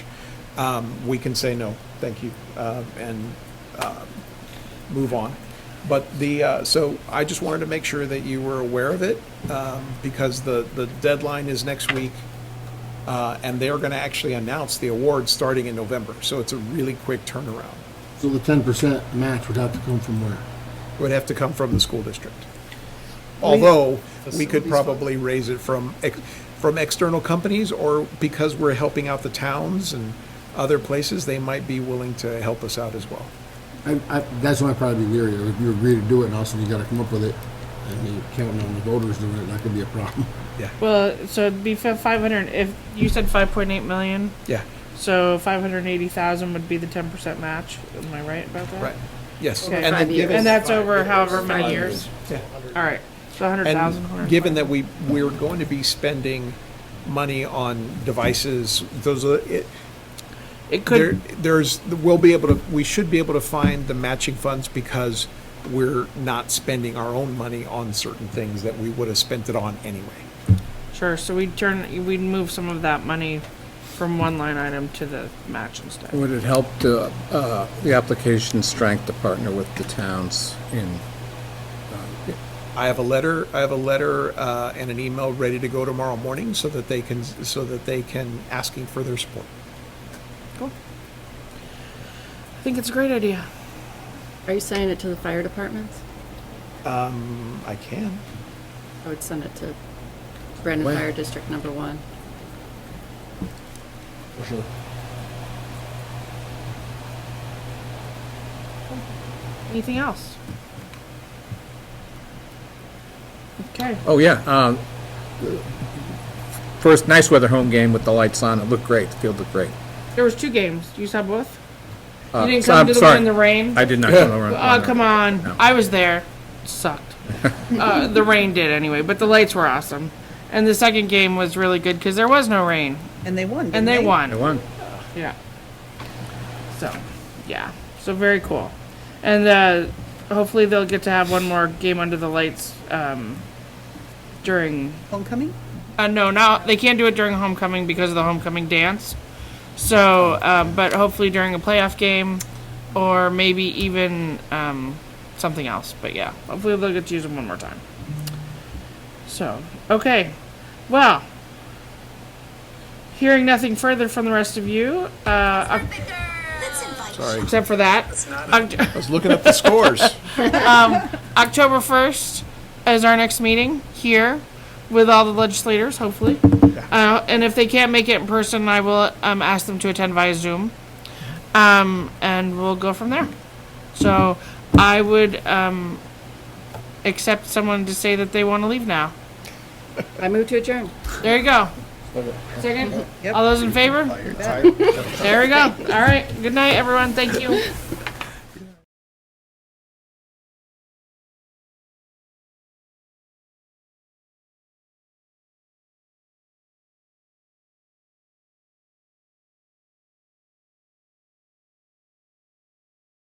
um, we can say no, thank you, uh, and uh, move on. But the, uh, so I just wanted to make sure that you were aware of it, um, because the, the deadline is next week, uh, and they're going to actually announce the award starting in November, so it's a really quick turnaround. So the ten percent match would have to come from where? It would have to come from the school district. Although, we could Facilities fund. probably raise it from, ex- from external companies, or because we're helping out the towns and other places, they might be willing to help us out as well. I, I, that's why I'd probably be leery, if you agree to do it, and also you gotta come up with it, and you count on the voters doing it, that could be a problem. Yeah, Well, so it'd be five hundred. If you said five point eight million, yeah, so five hundred eighty thousand would be the ten percent match. Am I right about that? right, yes. Okay. And then Five given- years. And that's Five over years. however many Five years. Yeah. All right, so hundred thousand. And given that we, we're going to be spending money on devices, those are, it, it there, could there's, we'll be able to, we should be able to find the matching funds because we're not spending our own money on certain things that we would have spent it on anyway. sure. So we'd turn we'd move some of that money from one line item to the match Mm. instead. Would it help to, uh, the application strength to partner with the towns in, I have a letter, I have a letter, uh, and an email ready to go tomorrow morning so that they can, so that they can asking for their support. I think it's a great idea. Are you sending it to the fire departments? I can. I would send it to Brandon Where? Fire District Number One. Anything else? Okay. oh, yeah. um, First, nice weather home game with the lights on. It looked great. The field looked great. There was two games. You saw both. Uh, You didn't so come I'm to the sorry. one in the rain. I did not come over. Oh, come on. No. I was there. Sucked. uh, the rain did anyway, but the lights were awesome. And the second game was really good because there was no rain. And they won. didn't And they I won. won. Yeah. So, yeah. So, very cool. And uh, hopefully, they'll get to have one more game under the lights um, during Homecoming? uh, no, now they can't do it during homecoming because of the homecoming dance. So, um, but hopefully during a playoff game, or maybe even um, something else. But yeah, hopefully they'll get to use them one more time. So, okay, well, hearing nothing further from the rest of you, uh, Oc- Sorry. except for that, Oct- I was looking up the scores. October 1st is our next meeting here with all the legislators, hopefully. Uh, and if they can't make it in person, I will um, ask them to attend via Zoom. Um, and we'll go from there. So I would um, accept someone to say that they want to leave now. I move to adjourn. There you go. Second? All those in favor? There we go. All right. Good night, everyone. Thank you.